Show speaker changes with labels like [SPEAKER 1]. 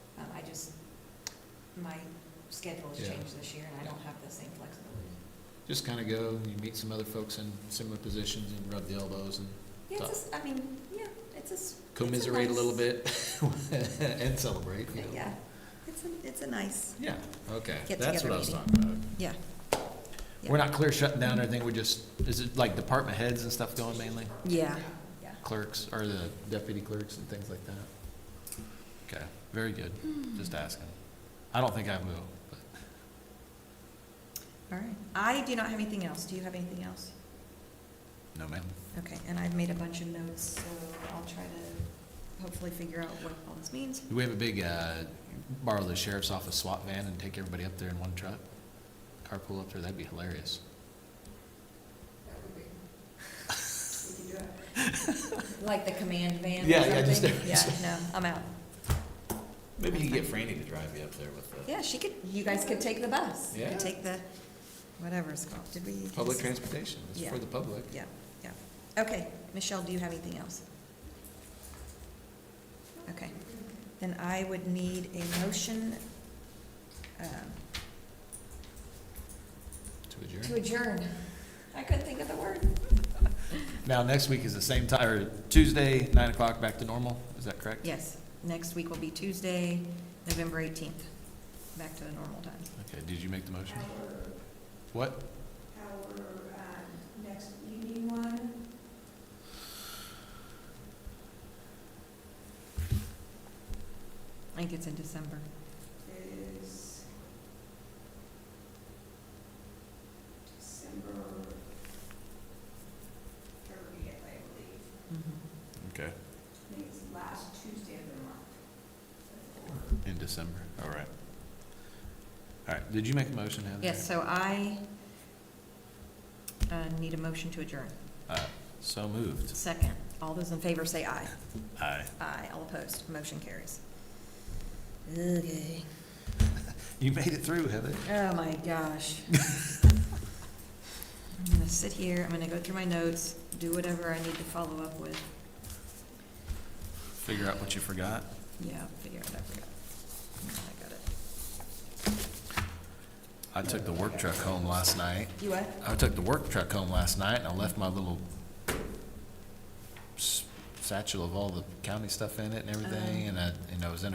[SPEAKER 1] Um, my schedule has
[SPEAKER 2] Yeah.
[SPEAKER 1] changed this year and I don't have the same flexibility.
[SPEAKER 2] Just kind of go, and you meet some other folks in similar positions and rub the elbows and
[SPEAKER 1] Yeah, it's, a s- I mean, yeah, it's a. s- it's
[SPEAKER 2] commiserate a little
[SPEAKER 1] nice-
[SPEAKER 2] bit and celebrate, you know.
[SPEAKER 1] Yeah, it's a, it's a nice,
[SPEAKER 2] Yeah, okay,
[SPEAKER 1] Get
[SPEAKER 2] that's what
[SPEAKER 1] together
[SPEAKER 2] I was
[SPEAKER 1] meeting.
[SPEAKER 2] talking about.
[SPEAKER 1] yeah.
[SPEAKER 2] We're not clear shutting down everything, we're just, is it like department heads and stuff going mainly?
[SPEAKER 3] Yeah.
[SPEAKER 1] Yeah.
[SPEAKER 2] Clerks, or the deputy clerks and things like that? Okay, very good,
[SPEAKER 1] Hmm.
[SPEAKER 2] just asking. I don't think I will, but.
[SPEAKER 1] All right. I do not have anything else. Do you have anything else?
[SPEAKER 2] No, ma'am.
[SPEAKER 1] Okay, and I've made a bunch of notes, so I'll try to hopefully figure out what all this means.
[SPEAKER 2] Do we have a big, uh, borrow the sheriff's office SWAT van and take everybody up there in one truck? Carpool up there, that'd be hilarious.
[SPEAKER 1] Like the command van
[SPEAKER 2] Yeah,
[SPEAKER 1] or
[SPEAKER 2] yeah, just-
[SPEAKER 1] something? Yeah, no, I'm out.
[SPEAKER 2] Maybe you could get Franny to drive you up there with the.
[SPEAKER 1] Yeah, she could, you guys could take the bus.
[SPEAKER 2] Yeah.
[SPEAKER 1] Take the, whatever it's called. Did we?
[SPEAKER 2] Public transportation, it's
[SPEAKER 1] Yeah.
[SPEAKER 2] for the public.
[SPEAKER 1] Yeah, yeah. Okay, Michelle, do you have anything else? Okay, then I would need a motion um,
[SPEAKER 2] To
[SPEAKER 1] to
[SPEAKER 2] adjourn.
[SPEAKER 1] adjourn. I couldn't think of the word.
[SPEAKER 2] Now, next week is the same time, or Tuesday, nine o'clock, back to normal, is that correct?
[SPEAKER 1] Yes, next week will be Tuesday, November eighteenth, back to the normal time.
[SPEAKER 2] Okay, did you make the motion? What?
[SPEAKER 1] I think it's in December. Mm-hmm.
[SPEAKER 2] Okay. In December, all right. All right, did you make a motion, Heather?
[SPEAKER 1] Yes, so I uh, need a motion to adjourn.
[SPEAKER 2] Uh, So moved.
[SPEAKER 1] Second, all those in favor say aye.
[SPEAKER 2] Aye.
[SPEAKER 1] Aye, all opposed, motion carries. Okay.
[SPEAKER 2] You made it through, Heather.
[SPEAKER 1] Oh, my gosh. I'm gonna sit here, I'm gonna go through my notes, do whatever I need to follow up with.
[SPEAKER 2] Figure out what you forgot.
[SPEAKER 1] Yeah, figure out what I forgot. Mm, I got it.
[SPEAKER 2] I took the work truck home last night.
[SPEAKER 1] You what?
[SPEAKER 2] I took the work truck home last night and I left my little s- satchel of all the county stuff in it and everything. And I, and I was in